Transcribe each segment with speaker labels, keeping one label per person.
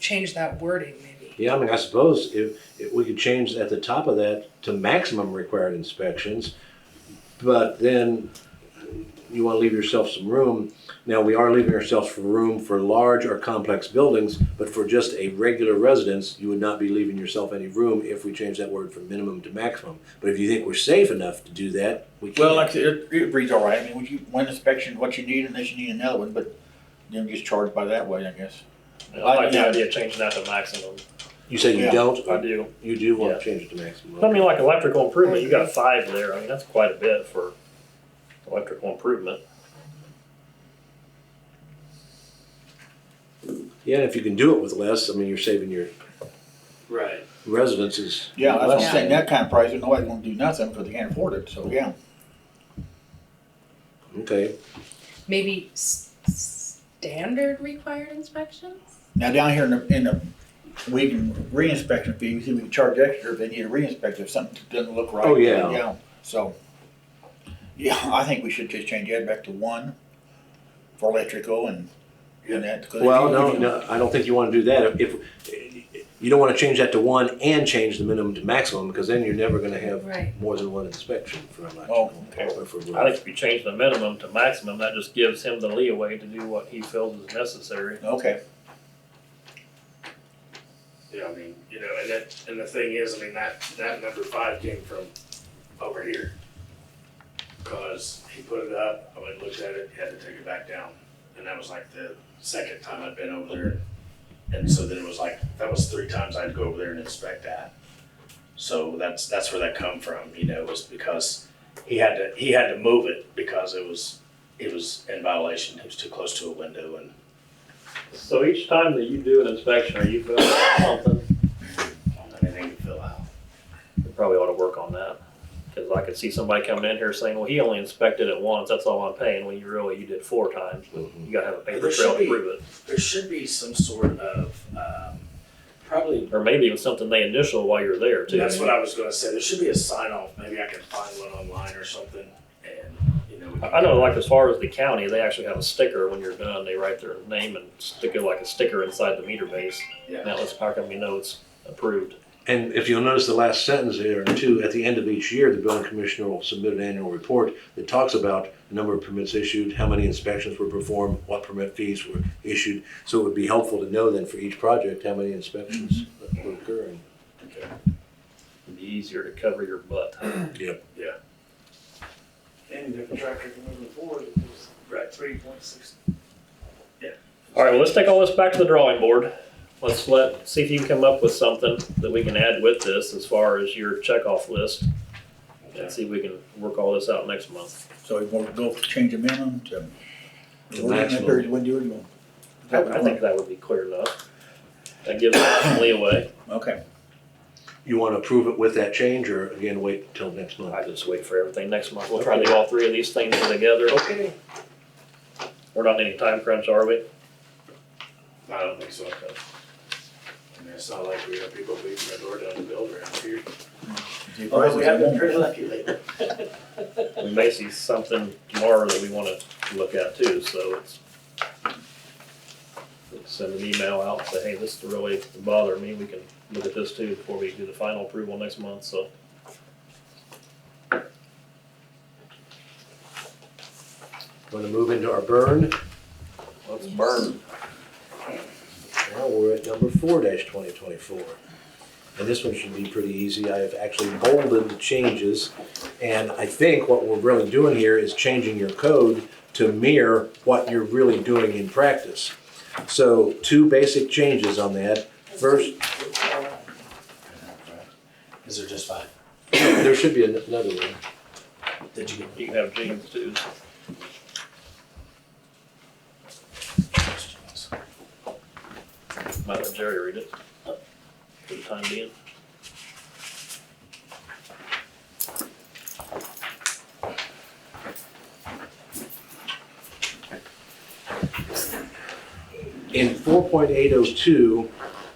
Speaker 1: change that wording maybe.
Speaker 2: Yeah, I mean, I suppose if, if we could change at the top of that to maximum required inspections, but then you want to leave yourself some room. Now, we are leaving ourselves for room for large or complex buildings, but for just a regular residence, you would not be leaving yourself any room if we change that word from minimum to maximum. But if you think we're safe enough to do that, we can.
Speaker 3: Well, like I said, it, it reads all right. I mean, would you, one inspection, what you need, and this you need another one, but you don't get charged by that way, I guess.
Speaker 4: I like the idea of changing that to maximum.
Speaker 2: you say you
Speaker 3: yeah,
Speaker 2: don't,
Speaker 4: I do.
Speaker 2: you do want
Speaker 4: Yeah.
Speaker 2: to change it to maximum.
Speaker 4: I mean, like electrical improvement, you got five there. I mean, that's quite a bit for electrical improvement.
Speaker 2: yeah, and if you can do it with less, I mean, you're saving your
Speaker 5: Right.
Speaker 2: residences.
Speaker 3: Yeah, that's what I'm
Speaker 1: Yeah.
Speaker 3: saying, that kind of price, nobody's gonna do nothing because they can't afford it, so, yeah.
Speaker 2: Okay.
Speaker 1: Maybe s- standard required inspections?
Speaker 3: Now, down here in the, in the, we can re-inspection fee, we see we can charge extra if they need a re-inspection, if something doesn't look right.
Speaker 2: Oh, yeah.
Speaker 3: Yeah, so, yeah, I think we should just change that back to one for electrical and, and that. 'cause
Speaker 2: Well,
Speaker 3: if
Speaker 2: no,
Speaker 3: you-
Speaker 2: no, I don't think you want to do that. If, you don't want to change that to one and change the minimum to maximum, because then you're never going to
Speaker 1: Right.
Speaker 2: have more than one inspection for
Speaker 3: Oh,
Speaker 2: electrical.
Speaker 3: okay.
Speaker 2: or for
Speaker 4: I
Speaker 2: roof.
Speaker 4: think if you change the minimum to maximum, that just gives him the leeway to do what he feels is necessary.
Speaker 3: Okay,
Speaker 5: Yeah, I mean, you know, and that, and the thing is, I mean, that, that number five came from over here. Cause he put it up, I went and looked at it, had to take it back down. And that was like the second time I'd been over there. And so then it was like, that was three times I'd go over there and inspect that. So that's, that's where that come from, you know, was because he had to, he had to move it because it was, it was in violation. It was too close to a window and
Speaker 4: So each time that you do an inspection or you build something,
Speaker 5: anything to fill out.
Speaker 4: you probably ought to work on that. Cause I could see somebody coming in here saying, well, he only inspected it once, that's all I'm paying, when you really, you did four times, but you gotta have a paper
Speaker 5: There
Speaker 4: trail
Speaker 5: should
Speaker 4: to
Speaker 5: be-
Speaker 4: prove it.
Speaker 5: There should be some sort of, um, probably,
Speaker 4: Or maybe even something they initial while you're there too.
Speaker 5: that's what I was gonna say, there should be a sign off, maybe I can find one online or something, and, you know. we can-
Speaker 4: I know, like as far as the county, they actually have a sticker when you're done. They write their name and stick it like a sticker inside the meter base. And
Speaker 5: Yeah,
Speaker 4: that lets Power Company know it's approved.
Speaker 2: And if you'll notice the last sentence there, too, at the end of each year, the building commissioner will submit an annual report that talks about the number of permits issued, how many inspections were performed, what permit fees were issued. So it would be helpful to know then for each project, how many inspections were occurring.
Speaker 5: okay.
Speaker 4: It'd be easier to cover your butt.
Speaker 6: And if the tractor can move it forward, it was
Speaker 5: Right.
Speaker 6: three point six.
Speaker 4: All right, well, let's take all this back to the drawing board. Let's let, see if you can come up with something that we can add with this as far as your checkoff list. And see if we can work all this out next month.
Speaker 3: so we want to go change the minimum to.
Speaker 2: To
Speaker 3: What do you want to do?
Speaker 2: maximum.
Speaker 3: What do you want?
Speaker 4: I I think that would be clear enough. That gives us some leeway.
Speaker 3: Okay,
Speaker 2: You want to approve it with that change or again, wait till next month?
Speaker 4: I just wait for everything next month. We'll try to do all three of these things together.
Speaker 2: Okay.
Speaker 4: We're not in any time crunch, are we?
Speaker 5: I don't think so, I mean, it's not like we have people beating their door down to build around here.
Speaker 3: Although Oh,
Speaker 4: Oh,
Speaker 3: we have been
Speaker 5: pretty lucky lately.
Speaker 4: We may see something tomorrow that we wanna look at too, so it's. Send an email out, say, hey, this is really bothering me, we can look at this too before we do the final approval next month, so.
Speaker 2: Want to move into our burn?
Speaker 4: Let's
Speaker 1: Yes.
Speaker 4: burn.
Speaker 2: Now we're at number four dash twenty twenty-four. And this one should be pretty easy. I have actually bolded the changes. And I think what we're really doing here is changing your code to mirror what you're really doing in practice. So two basic changes on that. First,
Speaker 5: Is there just five?
Speaker 2: there should be an- another one.
Speaker 5: Did you
Speaker 4: You can have James too.
Speaker 5: get questions?
Speaker 4: Might let Jerry read it. For the time being.
Speaker 2: In four point eight oh two,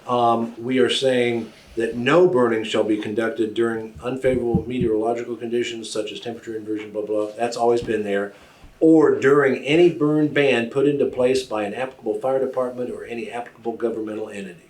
Speaker 2: um, we are saying that no burning shall be conducted during unfavorable meteorological conditions such as temperature inversion, blah, blah. That's always been there. or during any burn ban put into place by an applicable fire department or any applicable governmental entity.